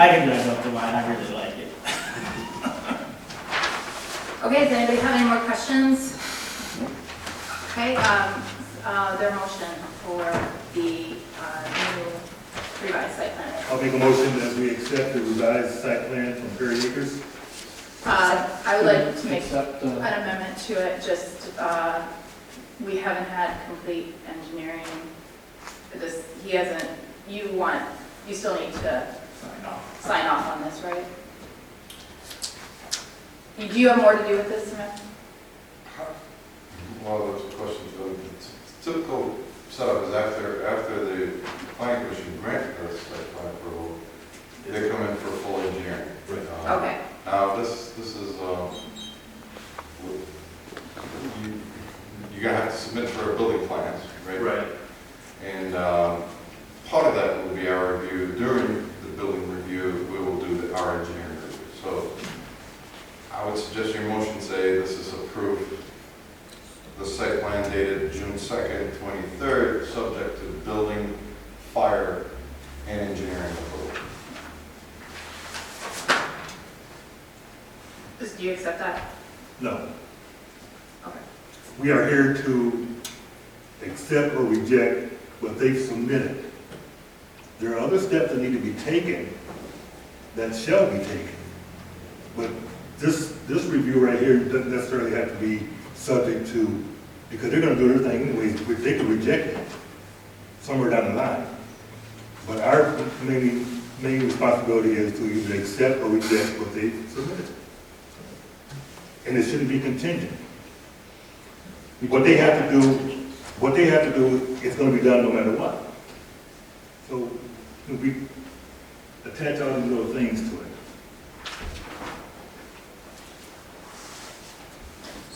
I can drive up to mine, I really like it. Okay, does anybody have any more questions? Okay, um, uh, their motion for the, uh, new revised site plan. I'll make a motion that we accept the revised site plan from Perry Acres. Uh, I would like to make Except, an uh, amendment to it, just, uh, we haven't had complete engineering. This, he hasn't, you want, you still need to sign off. sign off on this, right? You- Do you have more to do with this, Samantha? Well, those questions, but it's typical setup is after, after the planning commission granted us site plan approval, they come in for full engineering. Uh, Um, Okay, Now, this, this is, um, you, you're gonna have to submit for building plans, right? Right. And um, part of that will be our review, during the building review, we will do the- our engineering review. So I would suggest your motion say this is approved, the site plan dated June 2nd, 23rd, subject to building, fire, and engineering approval. Just- do you accept that? No. Okay. We are here to accept or reject what they've submitted. There are other steps that need to be taken that shall be taken. But this, this review right here doesn't necessarily have to be subject to, because they're gonna do everything anyways, which they could reject it somewhere down the line. But our main, main responsibility is to either accept or reject what they submitted. And it shouldn't be contingent. What they have to do, what they have to do is gonna be done no matter what. So we attach all these little things to it.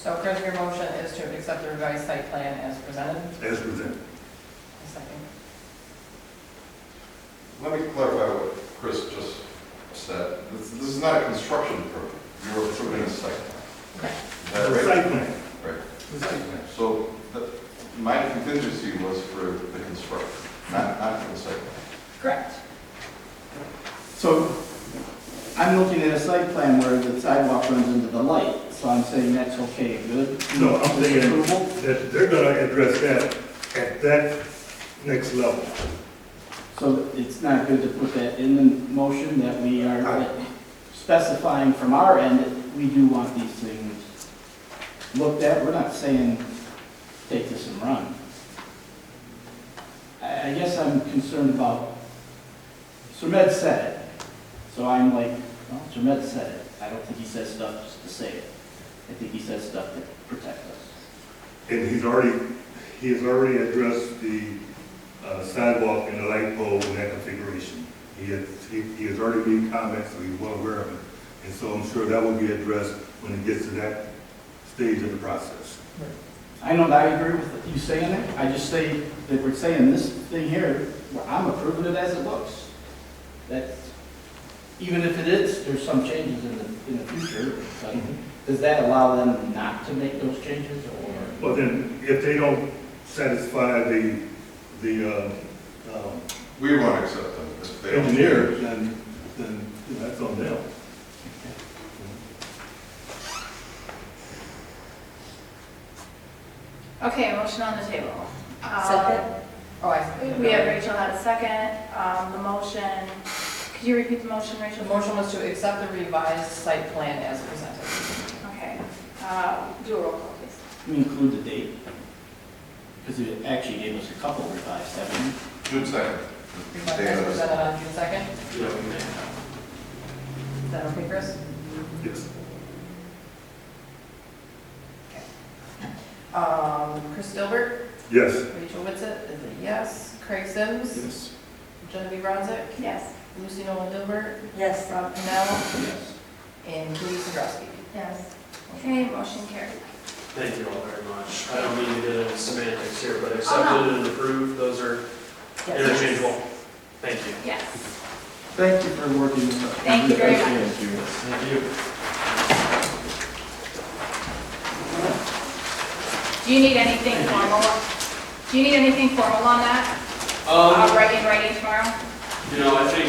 So Chris, your motion is to accept the revised site plan as presented? As presented. A second. Let me clarify what Chris just said. This this is not a construction permit, you're approving a site plan. Okay. Is that The right? site plan. Right. The site plan. So the- my contingency was for the construction, not, not for the site. Correct. So I'm looking at a site plan where the sidewalk runs into the light, so I'm saying that's okay, good? No, I'm thinking- Disapproval? That they're gonna address that at that next level. So it's not good to put that in the motion that we are specifying from our end that we do want these things looked at. We're not saying, take this and run. I, I guess I'm concerned about, Surmet said it, so I'm like, well, Surmet said it. I don't think he says stuff just to say it. I think he says stuff to protect us. And he's already, he has already addressed the uh, sidewalk and the light pole in that configuration. He has, he he has already made comments, so he's well aware of it. And so I'm sure that will be addressed when it gets to that stage of the process. I know that I agree with you saying it, I just say that we're saying this thing here, well, I'm approving it as it looks. That's, even if it is, there's some changes in the, in the future, but does that allow them not to make those changes or? Well, then, if they don't satisfy the, the uh, um, We won't accept them if they don't. engineer, then, then that's on them. Okay, motion on the table. Um, Second. Oh, I. We have Rachel had a second, um, the motion, could you repeat the motion, Rachel? The motion was to accept the revised site plan as presented. Okay, uh, do a roll call, please. Can we include the date? Because it actually gave us a couple revised, haven't June second. Revised As presented on June 2nd. Is that okay, Chris? Yes. Um, Chris Dilbert, Yes. Rachel Witsit is a yes. Craig Sims, Yes. Genevieve Bronzick, Yes. Lucy Nolan Dilbert, Yes. Rob Pennell, Yes. and Judy Sadrowski. Yes. Okay, motion carried. Thank you all very much. I don't mean to get into semantics here, but Oh, accepted and approved, those are interchangeable. Thank you. Yes. Thank you for working with us. Thank you very much. Appreciate you. Thank you. Do you need anything formal? Do you need anything formal on that? Um, Uh, writing, writing tomorrow? You know, I think